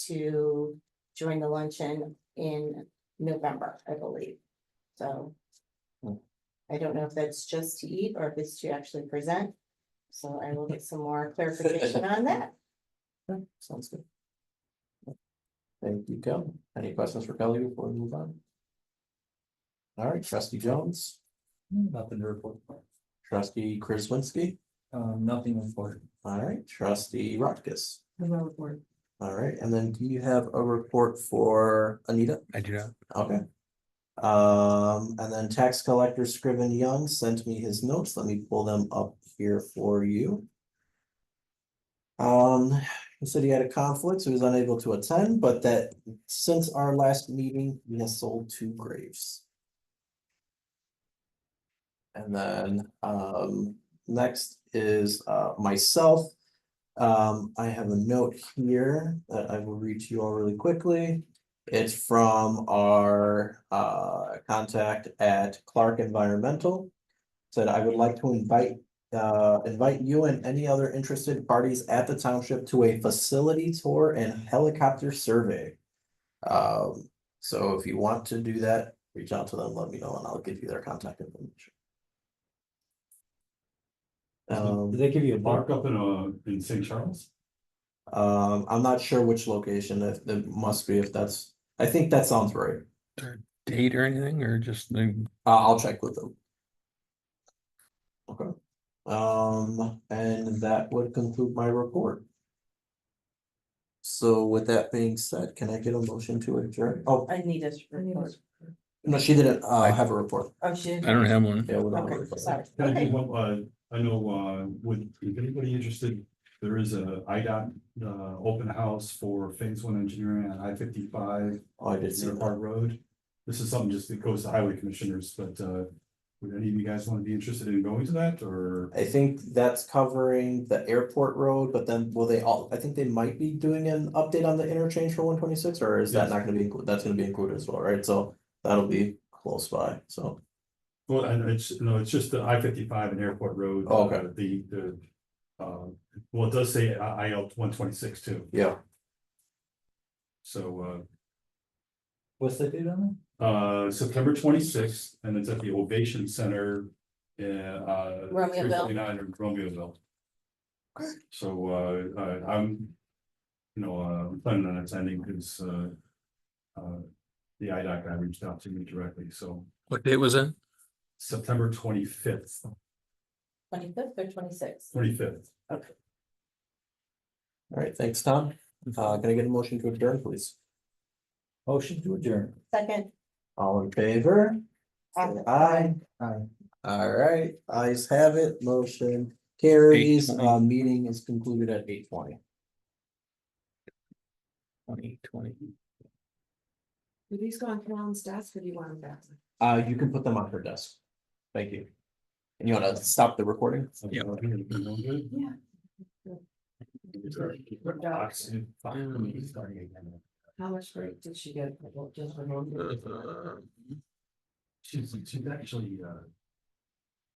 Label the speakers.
Speaker 1: to join the luncheon in November, I believe. So.
Speaker 2: Hmm.
Speaker 1: I don't know if that's just to eat or if it's to actually present. So I will get some more clarification on that.
Speaker 2: Okay, Sounds good. Thank you, Kelly. Any questions for Kelly before we move on? All right, trustee Jones,
Speaker 3: Nothing to report.
Speaker 2: trustee Krasinski,
Speaker 3: Um, nothing important.
Speaker 2: all right, trustee Rockus.
Speaker 1: No report.
Speaker 2: All right, and then do you have a report for Anita?
Speaker 4: I do not.
Speaker 2: Okay. Um, and then tax collector Scriven Young sent me his notes. Let me pull them up here for you. Um, he said he had a conflict, so he was unable to attend, but that since our last meeting, he has sold two graves. And then, um, next is, uh, myself. Um, I have a note here that I will read to you all really quickly. It's from our uh contact at Clark Environmental. Said I would like to invite uh invite you and any other interested parties at the township to a facility tour and helicopter survey. Um, so if you want to do that, reach out to them, let me know, and I'll give you their contact information.
Speaker 3: Did
Speaker 2: Um,
Speaker 3: they give you a
Speaker 5: Mark
Speaker 3: markup?
Speaker 5: up in uh in St. Charles?
Speaker 2: um, I'm not sure which location, if it must be, if that's, I think that sounds right.
Speaker 4: Date or anything, or just the,
Speaker 2: Uh, I'll check with them. Okay, um, and that would conclude my report. So with that being said, can I get a motion to adjourn? Oh,
Speaker 1: Anita's report.
Speaker 2: no, she didn't, uh, have a report.
Speaker 1: Oh, she.
Speaker 4: I don't have one.
Speaker 2: Yeah, we don't have a
Speaker 1: Okay,
Speaker 2: report.
Speaker 1: sorry.
Speaker 5: Can I do
Speaker 1: Okay.
Speaker 5: one, uh, I know, uh, would, if anybody interested, there is a IDOT, uh, open house for phase one engineering on I fifty-five.
Speaker 2: Oh, I did see
Speaker 5: Near
Speaker 2: that.
Speaker 5: Park Road. This is something just that goes to highway commissioners, but, uh, would any of you guys want to be interested in going to that or?
Speaker 2: I think that's covering the airport road, but then will they all, I think they might be doing an update on the interchange for one twenty-six, or is that
Speaker 5: Yes.
Speaker 2: not gonna be, included? that's gonna be included as well, right? So that'll be close by, so.
Speaker 5: Well, and it's, no, it's just the I fifty-five and Airport Road.
Speaker 2: Oh, okay.
Speaker 5: uh, The, the, uh, well, it does say I L one twenty-six too,
Speaker 2: Yeah.
Speaker 5: so, uh.
Speaker 3: What's the date on
Speaker 5: uh, September twenty-sixth, and it's at the Ovation Center. uh, Uh.
Speaker 1: Romeoville.
Speaker 5: 349 in Romeoville. So, uh, uh, I'm, you know, uh, I'm planning on attending because, uh. Uh, the IDOC guy reached out to me directly, so
Speaker 4: What date was it?
Speaker 5: September twenty-fifth,
Speaker 1: Twenty-fifth or twenty-sixth?
Speaker 5: twenty-fifth.
Speaker 2: All right, thanks, Tom. Uh, can I get a motion to adjourn, please?
Speaker 3: it? Motion to adjourn.
Speaker 1: Second.
Speaker 2: All in favor? Aye.
Speaker 3: Aye.
Speaker 2: All right, eyes have it, motion carries,
Speaker 4: 8:20.
Speaker 2: uh, meeting is concluded at eight twenty.
Speaker 4: Twenty twenty.
Speaker 6: Do these go on Carolyn's desk or do you want them back?
Speaker 2: Uh, you can put them on her desk. Thank you. And you wanna stop the recording?
Speaker 4: Yeah.
Speaker 6: Yeah. How much break did she get? Well, just a moment.
Speaker 5: She's, she's actually, uh,